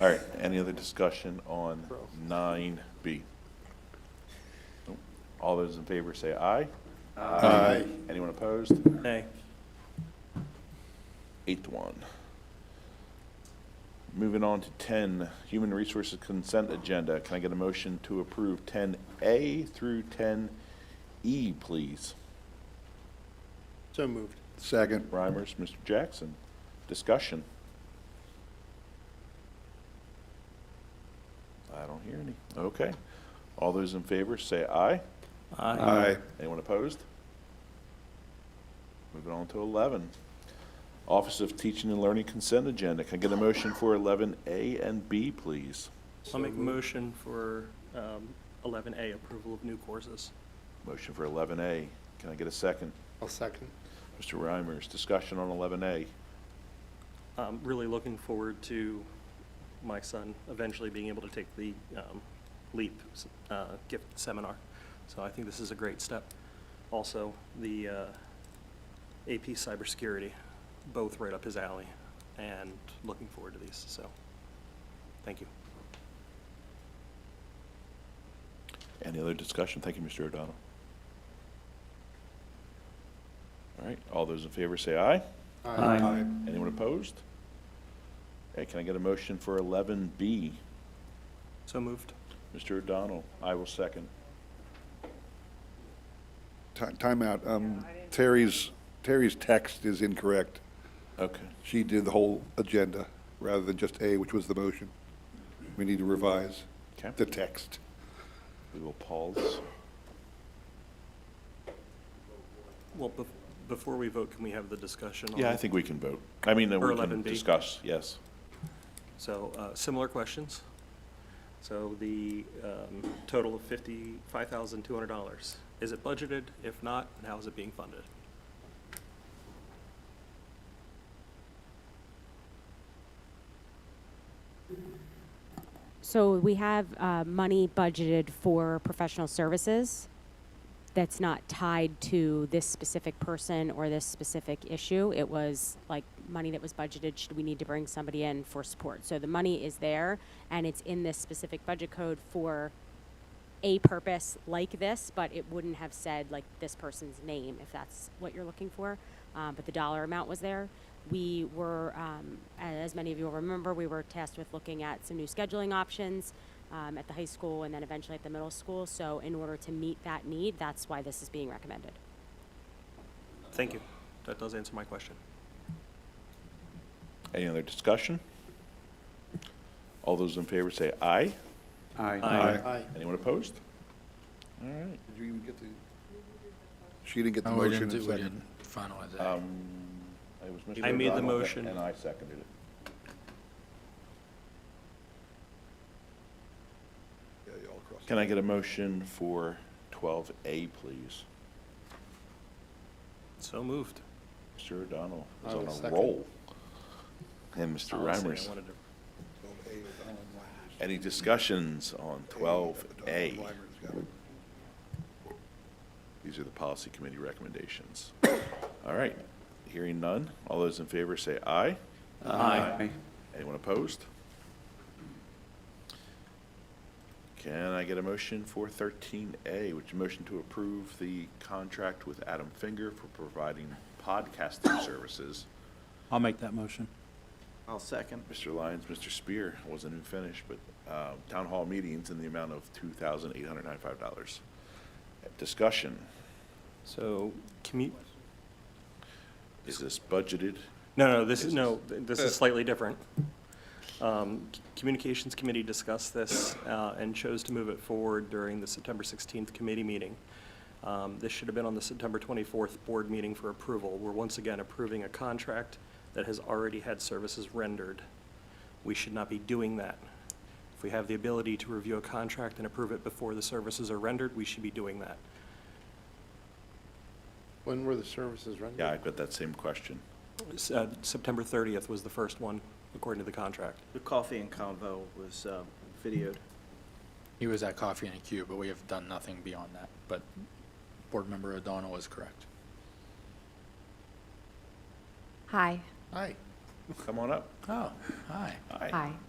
All right, any other discussion on nine B? All those in favor say aye. Aye. Anyone opposed? Nay. Eighth one. Moving on to ten, Human Resources Consent Agenda. Can I get a motion to approve ten A through ten E, please? So moved. Second. Reimers, Mr. Jackson, discussion. I don't hear any. Okay. All those in favor say aye. Uh, Aye. Anyone opposed? Moving on to 11. Office of Teaching and Learning Consent Agenda. Can I get a motion for 11A and B, please? I'll make a motion for um, 11A, approval of new courses. Motion for 11A. Can I get a second? I'll second. Mr. Reimers, discussion on 11A. I'm really looking forward to my son eventually being able to take the um, LEAP uh, gift seminar. So I think this is a great step. Also, the uh, AP cybersecurity, both right up his alley, and looking forward to these, so, thank you. Any other discussion? Thank you, Mr. O'Donnell. All right, all those in favor say aye. Aye. Anyone opposed? Okay, can I get a motion for 11B? So moved. Mr. O'Donnell, I will second. Timeout. Um, Terry's, Terry's text is incorrect. Okay. She did the whole agenda rather than just A, which was the motion. We need to revise Okay. the text. We will pause. Well, bef- before we vote, can we have the discussion? on- Yeah, I think we can vote. I mean, uh, we Or can 11B. discuss, yes. So, uh, similar questions. So the um, total of fifty-five thousand two hundred dollars. Is it budgeted? If not, and how is it being funded? So we have uh, money budgeted for professional services that's not tied to this specific person or this specific issue. It was like money that was budgeted, should we need to bring somebody in for support? So the money is there and it's in this specific budget code for a purpose like this, but it wouldn't have said like this person's name if that's what you're looking for. Um, but the dollar amount was there. We were, um, as many of you will remember, we were tasked with looking at some new scheduling options um, at the high school and then eventually at the middle school. So, in order to meet that need, that's why this is being recommended. Thank you. That does answer my question. Any other discussion? All those in favor say aye. Aye. Aye. Anyone opposed? All right. Did you even get the? She didn't get the No, we motion didn't, and do- we second. didn't finalize that. It was Mr. I made the O'Donnell that- motion. And I seconded it. Yeah, you all crossed. Can I get a motion for 12A, please? So moved. Mr. O'Donnell is I will on a second. roll. And Mr. Honestly, I Reimers. wanted to- Twelve A was Alan Weimer's. Any discussions on Alan 12A? Weimer's got it. These are the policy committee recommendations. All right, hearing none. All those in favor say aye. Aye. Anyone opposed? Can I get a motion for thirteen A, which is a motion to approve the contract with Adam Finger for providing podcasting services? I'll make that motion. I'll second. Mr. Lyons, Mr. Spear, I wasn't even finished, but, uh, town hall meetings in the amount of two thousand eight hundred ninety-five dollars. Discussion, So, commu, is this budgeted? no, no, this is, no, th- this is slightly different. Um, c- Communications Committee discussed this uh, and chose to move it forward during the September 16th committee meeting. Um, This should have been on the September 24th board meeting for approval. We're once again approving a contract that has already had services rendered. We should not be doing that. If we have the ability to review a contract and approve it before the services are rendered, we should be doing that. When were the services rendered? Yeah, I've got that same question. S- uh, September 30th was the first one, according to the contract. The coffee and convo was uh, videoed. He was at Coffee and a Q, but we have done nothing beyond that. But Board Member O'Donnell is correct. Hi. Aye. Come on up. Oh, hi. Aye. Hi.